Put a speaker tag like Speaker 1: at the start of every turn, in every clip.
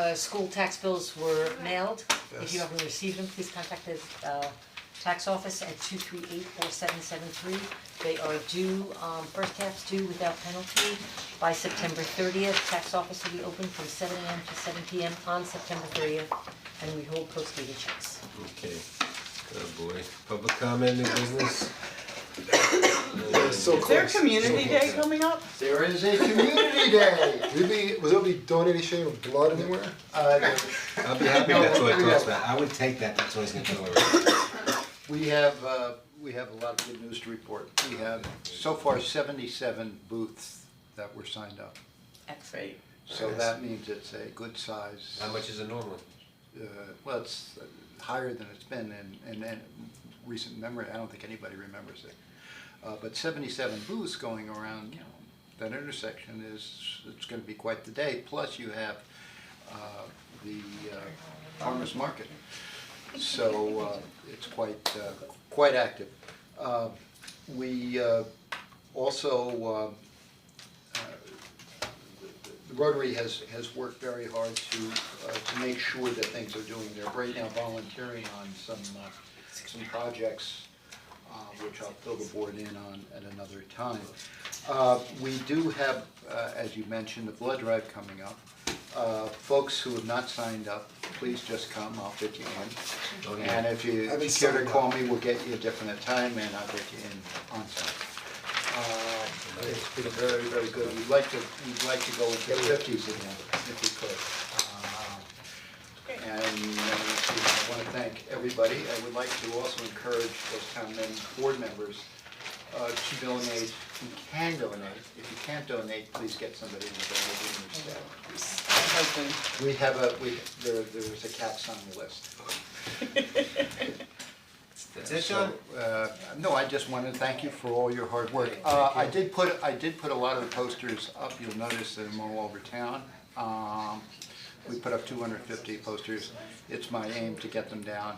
Speaker 1: uh school tax bills were mailed. If you
Speaker 2: Yes.
Speaker 1: haven't received them, please contact the uh tax office at two three eight four seven seven three. They are due, um first half's due without penalty by September thirtieth. Tax office will be open from seven AM to seven PM on September thirtieth. And we hold postdated checks.
Speaker 3: Okay, good boy. Public comment, new business?
Speaker 2: They're so
Speaker 4: Is there a
Speaker 2: close.
Speaker 4: community
Speaker 2: So
Speaker 4: day
Speaker 2: close.
Speaker 4: coming up?
Speaker 5: There is a community day.
Speaker 2: Would be, was there be donation of blood anywhere?
Speaker 5: Uh, no,
Speaker 3: I'll be happy if that's what it talks about. I would take that, that's always gonna kill it.
Speaker 5: we have, uh, we have a lot of good news to report. We have so far seventy-seven booths that were signed up.
Speaker 1: Excellent.
Speaker 5: So that means it's a good size.
Speaker 3: How much is a normal?
Speaker 5: Uh, well, it's higher than it's been and, and then recent memory, I don't think anybody remembers it. Uh, but seventy-seven booths going around, you know, that intersection is, it's gonna be quite the day, plus you have, uh, the, uh, farmer's market. So, uh, it's quite, uh, quite active. Uh, we, uh, also, uh, the Rotary has has worked very hard to uh to make sure that things are doing, they're right now volunteering on some uh some projects uh which I'll fill the board in on at another time. Uh we do have, uh as you mentioned, the blood drive coming up. Uh folks who have not signed up, please just come, I'll fit you
Speaker 3: Oh,
Speaker 5: in.
Speaker 3: yeah.
Speaker 5: And if you
Speaker 2: I've been
Speaker 5: if you care
Speaker 2: signed
Speaker 5: to
Speaker 2: up.
Speaker 5: call me, we'll get you a definite time and I'll get you in on time. Uh, it's been very, very good, we'd like to, we'd like to go get fifties again, if we could. Uh, And uh, I wanna thank everybody, I would like to also encourage those town men, board members, uh, to donate, you can donate, if you can't donate, please get somebody to donate in your staff.
Speaker 4: My husband.
Speaker 5: We have a, we, there, there's a cat's on the list.
Speaker 3: That's it, John?
Speaker 5: So, uh, no, I just wanted to thank you for all your hard work. Uh, I did put, I did put a lot of the posters up, you'll notice that I'm all over town. Um, we put up two hundred and fifty posters, it's my aim to get them down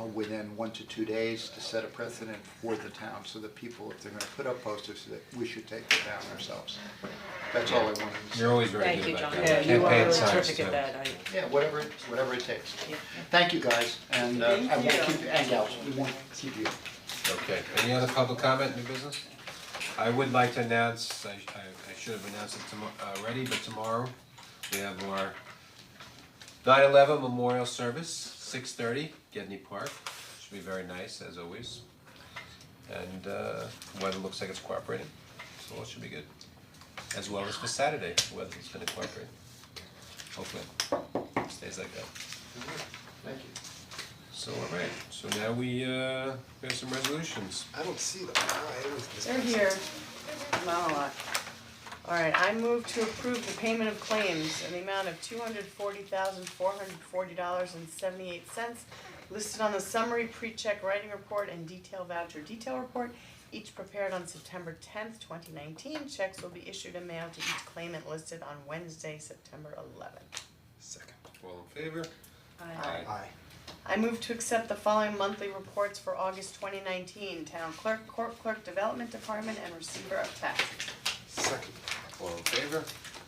Speaker 5: uh, within one to two days to set a precedent for the town, so that people, if they're gonna put up posters, that we should take them down ourselves. That's all I wanted to say.
Speaker 3: You're always very
Speaker 1: Thank
Speaker 3: good
Speaker 1: you,
Speaker 3: about
Speaker 1: John.
Speaker 3: that.
Speaker 4: Yeah, you
Speaker 3: Campaign
Speaker 4: are
Speaker 3: signs,
Speaker 4: terrific at
Speaker 3: so.
Speaker 4: that, I.
Speaker 5: Yeah, whatever, whatever it takes. Thank you guys, and uh, I won't
Speaker 4: Thank you.
Speaker 5: keep, and gals, we won't keep you.
Speaker 3: Okay, any other public comment, new business? I would like to announce, I I I should have announced it tomorrow already, but tomorrow we have our 9/11 memorial service, six thirty, Getney Park, should be very nice as always. And uh weather looks like it's cooperating, so it should be good. As well as for Saturday, weather's gonna cooperate, hopefully, stays like that.
Speaker 5: Thank you.
Speaker 3: So alright, so now we uh we have some resolutions.
Speaker 2: I don't see them, I always miss
Speaker 4: They're here. Not a lot. Alright, I move to approve the payment of claims in the amount of two hundred forty thousand, four hundred forty dollars and seventy-eight cents listed on the summary pre-check writing report and detail voucher detail report, each prepared on September tenth, twenty nineteen. Checks will be issued and mailed to each claimant listed on Wednesday, September eleventh.
Speaker 2: Second.
Speaker 3: All in favor?
Speaker 2: Aye.
Speaker 4: I move to accept the following monthly reports for August twenty nineteen, Town Clerk, Court Clerk, Development Department, and Receiver of Taxes.
Speaker 2: Second.
Speaker 3: All in favor?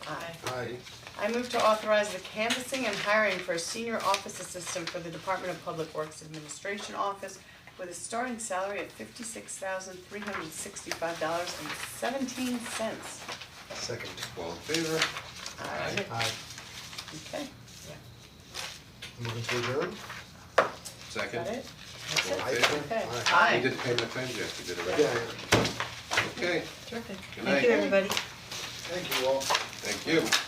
Speaker 4: Aye.
Speaker 2: Aye.
Speaker 4: I move to authorize the canvassing and hiring for a senior office assistant for the Department of Public Works Administration Office with a starting salary of fifty-six thousand three hundred sixty-five dollars and seventeen cents.
Speaker 2: Second.
Speaker 3: All in favor? Aye.
Speaker 2: Aye.
Speaker 4: Okay,
Speaker 2: Moving to adjourn?
Speaker 4: is that
Speaker 3: Second?
Speaker 4: it? That's it?
Speaker 2: Aye.
Speaker 4: Okay.
Speaker 2: Aye.
Speaker 3: We
Speaker 4: Aye.
Speaker 3: did pay my claims yesterday, did
Speaker 2: Yeah,
Speaker 3: I?
Speaker 2: yeah.
Speaker 3: Okay,
Speaker 1: Terrific.
Speaker 3: good
Speaker 1: Thank you,
Speaker 3: night,
Speaker 1: everybody.
Speaker 5: Thank you all.
Speaker 3: thank you.